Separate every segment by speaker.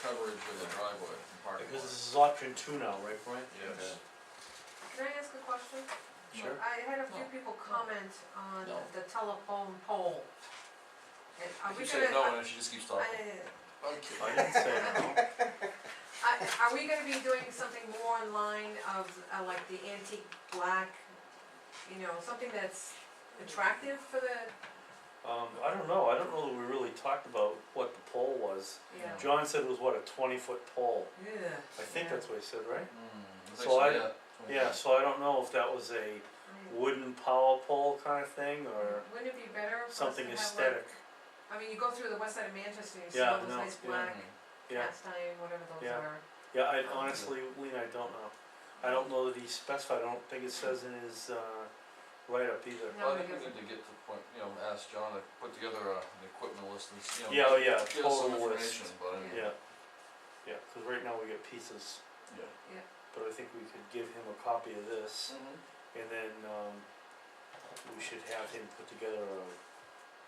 Speaker 1: coverage with a driveway and parking
Speaker 2: Because
Speaker 1: lot.
Speaker 2: this is option two now, right, Brian?
Speaker 1: Yes.
Speaker 3: Can I ask a question?
Speaker 2: Sure.
Speaker 3: I had a few
Speaker 1: No.
Speaker 3: people comment on
Speaker 1: No.
Speaker 3: the telephone pole. And are we
Speaker 4: You
Speaker 3: gonna, uh,
Speaker 4: said no, and then she just keeps talking.
Speaker 3: I-
Speaker 1: Okay.
Speaker 2: I didn't say no.
Speaker 3: I- are we gonna be doing something more in line of, uh, like the antique black, you know, something that's attractive for the,
Speaker 2: Um, I don't know, I don't know that we really talked about what the pole was.
Speaker 3: yeah,
Speaker 2: John said it was what, a twenty foot pole?
Speaker 3: yeah.
Speaker 2: I think
Speaker 3: Yeah.
Speaker 2: that's what he said, right?
Speaker 1: Mm,
Speaker 2: So I-
Speaker 1: yeah. Hmm.
Speaker 2: Yeah, so I don't know if that was a wooden power pole kind of thing or
Speaker 3: Wouldn't it be better for us to
Speaker 2: something
Speaker 3: have like?
Speaker 2: aesthetic.
Speaker 3: I mean, you go through the west side of Manchester, you see
Speaker 2: Yeah,
Speaker 3: all those
Speaker 2: no,
Speaker 3: nice
Speaker 2: yeah.
Speaker 3: black
Speaker 1: Mhm.
Speaker 2: Yeah,
Speaker 3: cast iron, whatever those
Speaker 2: Yeah.
Speaker 3: are.
Speaker 2: yeah, I honestly, Lean, I don't know. I don't know that he specified, I don't think it says in his, uh, write-up either.
Speaker 3: No,
Speaker 1: Well, I think we
Speaker 3: because-
Speaker 1: need to get to the point, you know, ask John to put together a, an equipment list and, s- you know.
Speaker 2: Yeah, oh yeah,
Speaker 1: Give us some
Speaker 2: total list,
Speaker 1: information, but I mean,
Speaker 2: yeah. Yeah, cause right now we get pieces,
Speaker 1: yeah.
Speaker 2: but I think we could give him a copy of this
Speaker 1: Mhm.
Speaker 2: and then, um, we should have him put together a,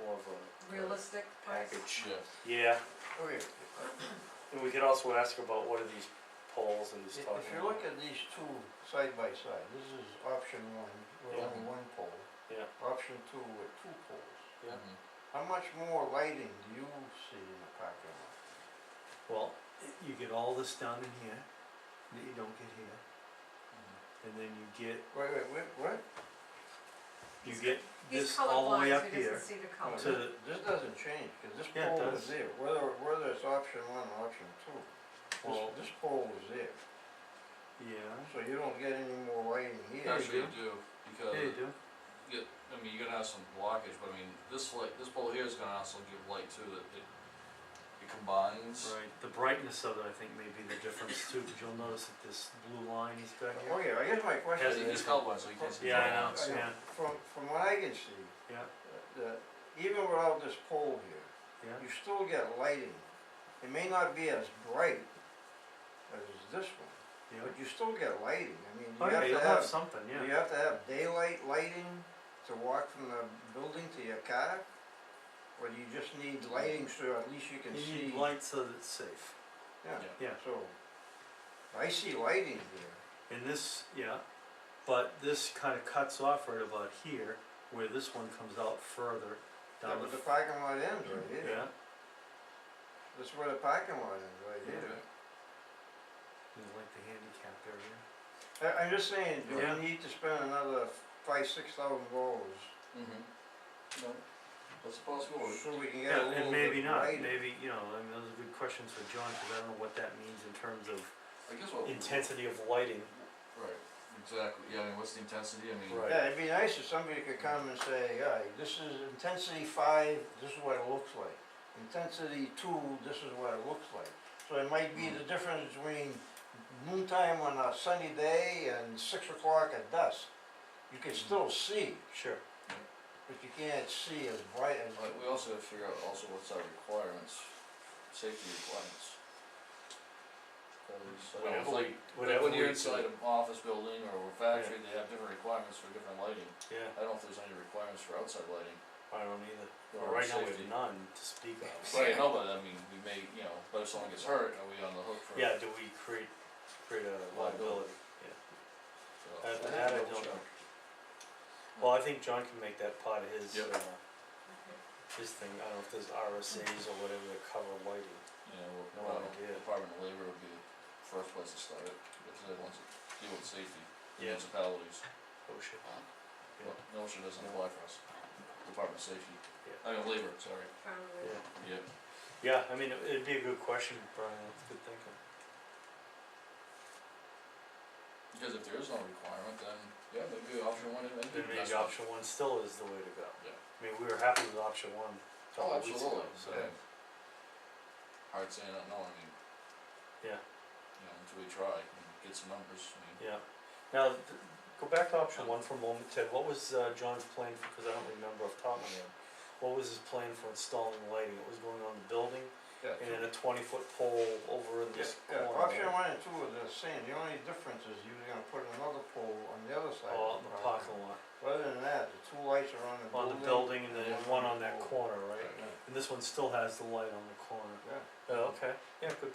Speaker 2: more of a.
Speaker 3: Realistic price.
Speaker 2: Package,
Speaker 1: Yeah. Mm-hmm.
Speaker 2: yeah,
Speaker 4: Oh, yeah.
Speaker 2: and we could also ask about what are these poles and he's
Speaker 4: If-
Speaker 2: talking
Speaker 4: if you
Speaker 2: about.
Speaker 4: look at these two side by side, this is option one, with
Speaker 2: Yeah.
Speaker 4: only one pole.
Speaker 2: Yeah.
Speaker 4: Option two with two poles.
Speaker 2: Yeah.
Speaker 1: Mhm.
Speaker 4: How much more lighting do you see in the parking lot?
Speaker 5: Well, you get all this down in here, that you don't get here,
Speaker 1: Mhm.
Speaker 5: and then you get,
Speaker 4: Wait, wait, wait, what?
Speaker 5: you
Speaker 3: He's-
Speaker 5: get
Speaker 3: He's
Speaker 5: this all the way
Speaker 3: colorblind,
Speaker 5: up
Speaker 3: so he doesn't
Speaker 5: here.
Speaker 3: see the
Speaker 4: No,
Speaker 3: color.
Speaker 5: To
Speaker 4: this- This doesn't change, cause this
Speaker 5: Yeah, it
Speaker 4: pole is
Speaker 5: does.
Speaker 4: there, whether, whether it's option one or option two.
Speaker 5: Well-
Speaker 4: This, this pole is there,
Speaker 5: Yeah.
Speaker 4: so you don't get any more lighting here.
Speaker 1: Actually, you
Speaker 5: do.
Speaker 1: do, because,
Speaker 5: Yeah, you do.
Speaker 1: it- I mean, you're gonna have some blockage, but I mean, this light, this pole here is gonna also give light too, that it, it combines.
Speaker 5: Right, the brightness of it, I think, may be the difference too, because you'll notice that this blue line he's got here.
Speaker 4: Oh, yeah, I guess my question
Speaker 5: Has
Speaker 1: Because
Speaker 5: it-
Speaker 4: is.
Speaker 1: he's colorblind, so he can't see.
Speaker 5: Yeah, I
Speaker 1: color.
Speaker 5: know, yeah,
Speaker 4: From, from what I can see,
Speaker 5: yeah,
Speaker 4: that even without this pole here,
Speaker 5: yeah.
Speaker 4: you still get lighting. It may not be as bright as this one,
Speaker 5: yeah.
Speaker 4: but you still get lighting. I mean,
Speaker 5: Oh, yeah,
Speaker 4: you
Speaker 5: you'll
Speaker 4: have
Speaker 5: have
Speaker 4: to
Speaker 5: something,
Speaker 4: have, you
Speaker 5: yeah.
Speaker 4: have to have daylight lighting to walk from the building to your car? Or do you just need lighting so at least you can
Speaker 5: You
Speaker 4: see?
Speaker 5: need light so that it's safe.
Speaker 4: Yeah,
Speaker 5: yeah.
Speaker 4: so, I see lighting here.
Speaker 5: And this, yeah, but this kinda cuts off right about here, where this one comes out further
Speaker 4: Yeah,
Speaker 5: down
Speaker 4: but
Speaker 5: the.
Speaker 4: the parking lot ends right
Speaker 5: f-
Speaker 4: here.
Speaker 5: Yeah,
Speaker 4: That's where the parking lot ends, right
Speaker 5: Yeah.
Speaker 4: here.
Speaker 5: you like the handicap area.
Speaker 4: I, I'm just saying, do
Speaker 5: Yeah.
Speaker 4: we need to spend another five, six thousand dollars
Speaker 1: Mhm. No, that's a possibility.
Speaker 4: so we can get a
Speaker 5: Yeah, and
Speaker 4: little
Speaker 5: maybe
Speaker 4: bit
Speaker 5: not,
Speaker 4: lighter?
Speaker 5: maybe, you know, I mean, those are good questions for John, cause I don't know what that means in terms of
Speaker 1: I guess what.
Speaker 5: intensity of lighting.
Speaker 1: Right, exactly, yeah, and what's the intensity, I mean.
Speaker 2: Right.
Speaker 4: Yeah, it'd be nice if somebody could come and say, yeah, this is intensity five, this is what it looks like. Intensity two, this is what it looks like. So it might be the difference between noontime on a sunny day and six o'clock at dusk. You can still see,
Speaker 5: Sure.
Speaker 4: but you can't see as bright as.
Speaker 1: But we also have to figure out also what's our requirements, safety requirements. Cause I
Speaker 2: Whatever
Speaker 1: know, it's
Speaker 2: we-
Speaker 1: like, like
Speaker 2: whatever
Speaker 1: when you're
Speaker 2: we
Speaker 1: inside
Speaker 2: do.
Speaker 1: an office building or a factory, they have different requirements for different lighting.
Speaker 2: Yeah,
Speaker 1: I don't know if there's any requirements for outside lighting
Speaker 2: I don't either. Well,
Speaker 1: or
Speaker 2: right now we
Speaker 1: safety.
Speaker 2: have none to speak of.
Speaker 1: Right, no, but I mean, we may, you know, but if someone gets hurt, are we on the hook for?
Speaker 2: Yeah, do we create, create a liability?
Speaker 1: so-
Speaker 2: That, that I don't know. Well, I think John can make that part of his,
Speaker 1: Yep.
Speaker 2: uh, his thing, I don't know if there's RSA's or whatever that cover lighting.
Speaker 1: Yeah, well,
Speaker 2: No
Speaker 1: probably
Speaker 2: idea.
Speaker 1: Department of Labor would be the first place to start it, because they want to deal with safety,
Speaker 2: Yeah.
Speaker 1: municipalities.
Speaker 2: Oh shit. Yeah.
Speaker 1: Well, no, she doesn't apply for us, Department of Safety,
Speaker 2: Yeah.
Speaker 1: I mean, Labor, sorry,
Speaker 3: Probably.
Speaker 2: Yeah.
Speaker 1: yeah.
Speaker 2: Yeah, I mean, it- it'd be a good question, Brian, that's good thinking.
Speaker 1: Because if there is no requirement, then, yeah, maybe option one, maybe.
Speaker 2: Then maybe option one still is the way to go.
Speaker 1: Mm-hmm. Yeah.
Speaker 2: I mean, we were happy with option one a couple
Speaker 1: Oh,
Speaker 2: of weeks ago,
Speaker 1: absolutely,
Speaker 2: so.
Speaker 1: yeah. Hard saying, no, I mean.
Speaker 2: Yeah.
Speaker 1: You know, until we try and get some numbers, I mean,
Speaker 2: Yeah, now, th- go back to option one for a moment, Ted, what was, uh, John's plan, because I don't remember off the top of my head. What was his plan for installing lighting, it was going on the building,
Speaker 4: Yeah,
Speaker 2: and then a twenty foot pole over in this
Speaker 4: Yeah,
Speaker 2: corner.
Speaker 4: option
Speaker 2: right?
Speaker 4: one and two are the same, the only difference is you're gonna put another pole on the other side
Speaker 2: Oh,
Speaker 4: of
Speaker 2: in
Speaker 4: the
Speaker 2: the
Speaker 4: parking.
Speaker 2: parking lot,
Speaker 4: Other than that, the two lights are on the
Speaker 2: on
Speaker 4: building.
Speaker 2: the building and then one on that
Speaker 4: pole.
Speaker 2: corner, right?
Speaker 1: Right.
Speaker 4: Yeah,
Speaker 2: And this one still has the light on the corner,
Speaker 4: yeah.
Speaker 2: oh, okay, yeah, good